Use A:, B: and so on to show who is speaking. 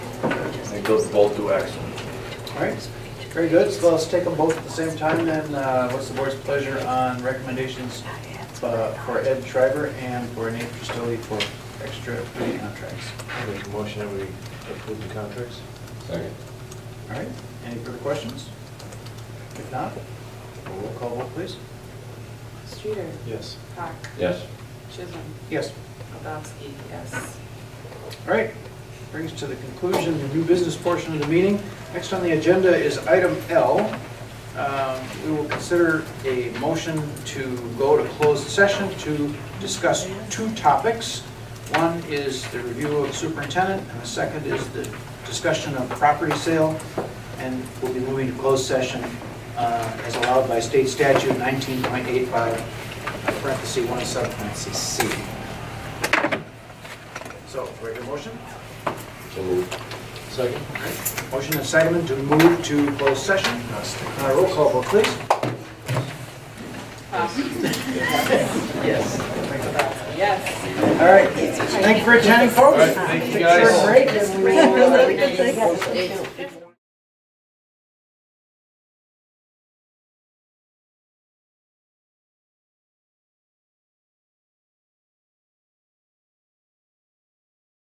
A: think those both do excellent.
B: All right, very good, so let's take them both at the same time then. Uh, What's the board's pleasure on recommendations uh, for Ed Schreiber and for Nate Christoli for extra duty contracts?
C: Make a motion that we approve the contracts?
D: Second.
B: All right, any further questions? If not, roll call vote please.
E: Streeter.
C: Yes.
E: Park.
D: Yes.
E: Chisholm.
B: Yes.
E: Kowalski, yes.
B: All right, brings us to the conclusion, the new business portion of the meeting. Next on the agenda is item L. Um, We will consider a motion to go to closed session to discuss two topics. One is the review of the superintendent, and the second is the discussion of property sale. And we'll be moving to closed session uh, as allowed by state statute 19.85, parentheses 1, subparentheses C. So, ready for motion?
D: So moved.
C: Second?
B: Motion and second to move to closed session. Uh, Roll call vote, please.
E: Park.
B: Yes.
E: Yes.
B: All right. Thank you for attending, folks.
C: thank you,
B: Take a short
C: guys.
B: break and we will, uh,
F: Really good thing.